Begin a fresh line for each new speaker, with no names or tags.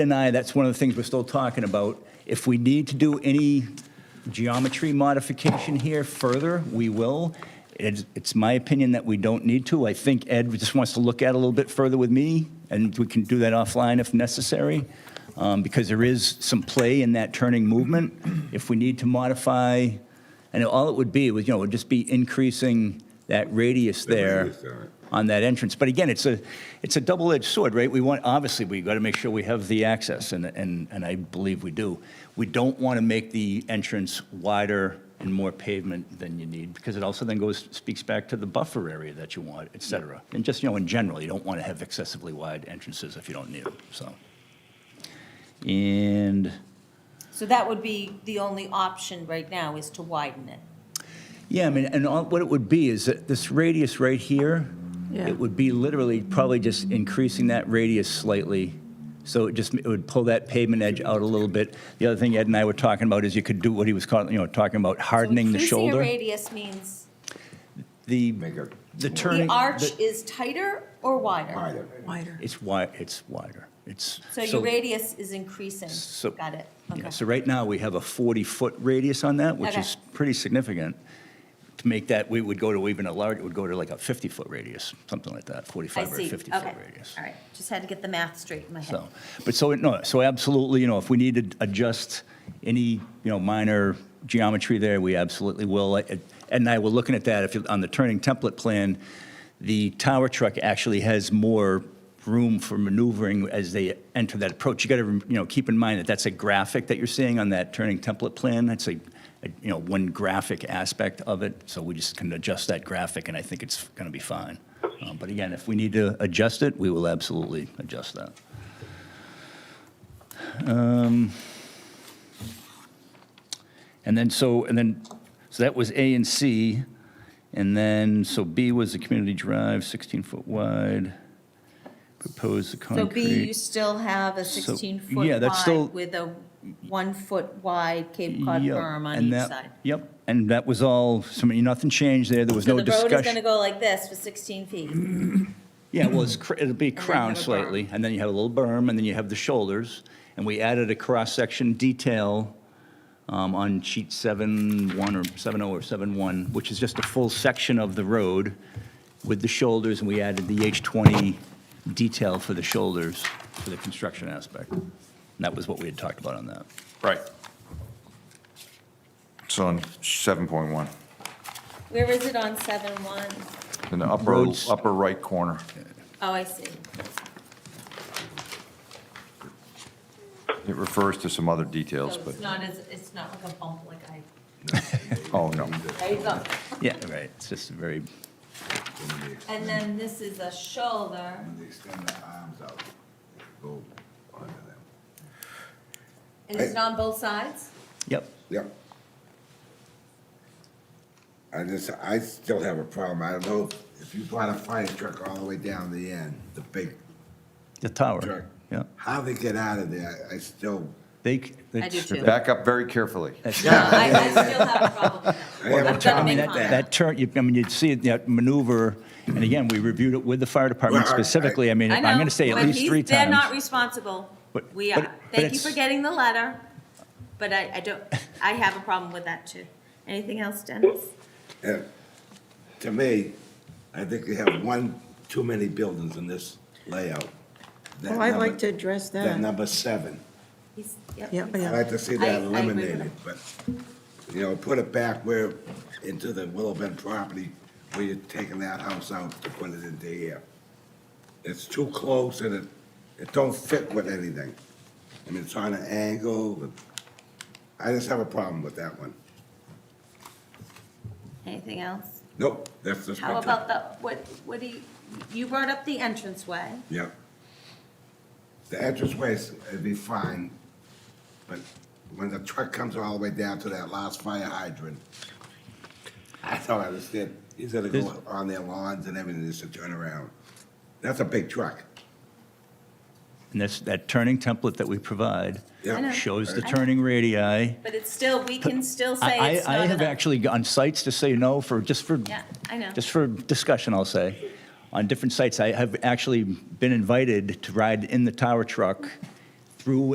and I, that's one of the things we're still talking about. If we need to do any geometry modification here further, we will. It's, it's my opinion that we don't need to. I think Ed just wants to look at it a little bit further with me, and we can do that offline if necessary, um, because there is some play in that turning movement. If we need to modify, and all it would be was, you know, it would just be increasing that radius
The
there
radius there, right.
on that entrance. But again, it's a, it's a double-edged sword, right? We want, obviously, we got to make sure we have the access, and, and, and I believe we do. We don't want to make the entrance wider and more pavement than you need, because it also then goes, speaks back to the buffer area that you want, et cetera. And just, you know, in general, you don't want to have excessively wide entrances if you don't need them, so. And,
So that would be the only option right now is to widen it.
yeah, I mean, and all, what it would be is that this radius right here,
Yeah.
it would be literally probably just increasing that radius slightly. So it just, it would pull that pavement edge out a little bit. The other thing Ed and I were talking about is you could do what he was calling, you know, talking about hardening the
So
shoulder.
increasing a radius means
The,
Make it
the
the
turning.
arch
the-
is tighter or wider?
wider.
Wider.
It's wide, it's wider. It's.
So your radius is increasing.
So-
Got it?
Yeah,
Okay.
so right now, we have a 40-foot radius on that, which
Okay.
is pretty significant. To make that, we would go to even a larger, it would go to like a 50-foot radius, something like that,
I
45 or
see.
50-foot
Okay.
radius.
All right. Just had to get the math straight in my head.
So, but so, no, so absolutely, you know, if we need to adjust any, you know, minor geometry there, we absolutely will. Ed and I were looking at that, if, you- on the turning template plan, the tower truck actually has more room for maneuvering as they enter that approach. You got to, you know, keep in mind that that's a graphic that you're seeing on that turning template plan. That's a, a- you know, one graphic aspect of it, so we just can adjust that graphic, and I think it's going to be fine. Um, But again, if we need to adjust it, we will absolutely adjust that. And then so, and then, so that was A and C. And then, so B was the community drive, 16-foot wide, proposed the
So
concrete.
B, you still have a
So-
16-foot
yeah, that's still-
wide with a one-foot wide Cape Cod
Yep,
berm on
and
each
that-
side.
Yep, and that was all, so I mean, nothing changed there, there was
So
no
the
discussion.
road is going to go like this for 16 feet.
Yeah, well, it's, cr- it'll be
Mm-hmm. then
crowned
have a berm.
slightly, and then you have a little berm, and then you have the shoulders. And we added a cross-section detail um, on sheet seven one or seven oh or seven one, which is just a full section of the road with the shoulders, and we added the H20 detail for the shoulders for the construction aspect. And that was what we had talked about on that.
Right. So on 7.1,
Where is it on 7-1?
in the upper,
Roads.
upper right corner.
Oh, I see.
It refers to some other details,
So
but,
it's not as, it's not like a bump like I,
oh, no.
there you go.
Yeah, right, it's just a very,
And then this is a shoulder,
When they extend their arms out, they go under them.
and is it on both sides?
yep,
Yep. I just, I still have a problem. I don't know if you brought a fire truck all the way down the end, the big
the tower,
truck.
yeah.
How they get out of there, I still,
They, c-
I do
it's-
too.
Back up very carefully.
No, Uh, I, I still have a problem with
I
that.
have a
I've got a
problem
big
with
That,
one.
that turn, you- I mean, you'd see it, that maneuver, and again, we reviewed it with the fire department
Well, I-
specifically, I mean,
I
I'm
know,
going to say at
but
least
he's-
three
They're not
times.
responsible.
But-
We
but-
are.
but
Thank you
it's-
for getting the letter, but I, I don't, I have a problem with that too. Anything else, Dennis?
uh, to me, I think you have one too many buildings in this layout. That
Well, Oh, I'd
number-
like to address
That
that.
number seven.
He's- yep,
Yeah,
he's-
I'd like to see
I- I
that
agree with
eliminated,
him.
but, you know, put it back where, into the Willow Bend property, where you're taking that house out to put it into here. It's too close and it, it don't fit with anything. I mean, it's on an angle, but I just have a problem with that one.
Anything else?
Nope, that's just.
How
my
about the, what, what do you, you brought up the entranceway.
take. Yep. The entranceway is, it'd be fine, but when the truck comes all the way down to that last fire hydrant, I don't understand. He's gonna go on their lawns and everything just to turn around. That's a big truck.
And that's, that turning template that we provide
Yeah. I know.
shows the
I know.
turning radii.
But it's still, we can still say
I,
it's
I I
not
have
enough.
actually gone sites to say no for, just for,
Yeah, I know.
just for discussion, I'll say. On different sites, I have actually been invited to ride in the tower truck through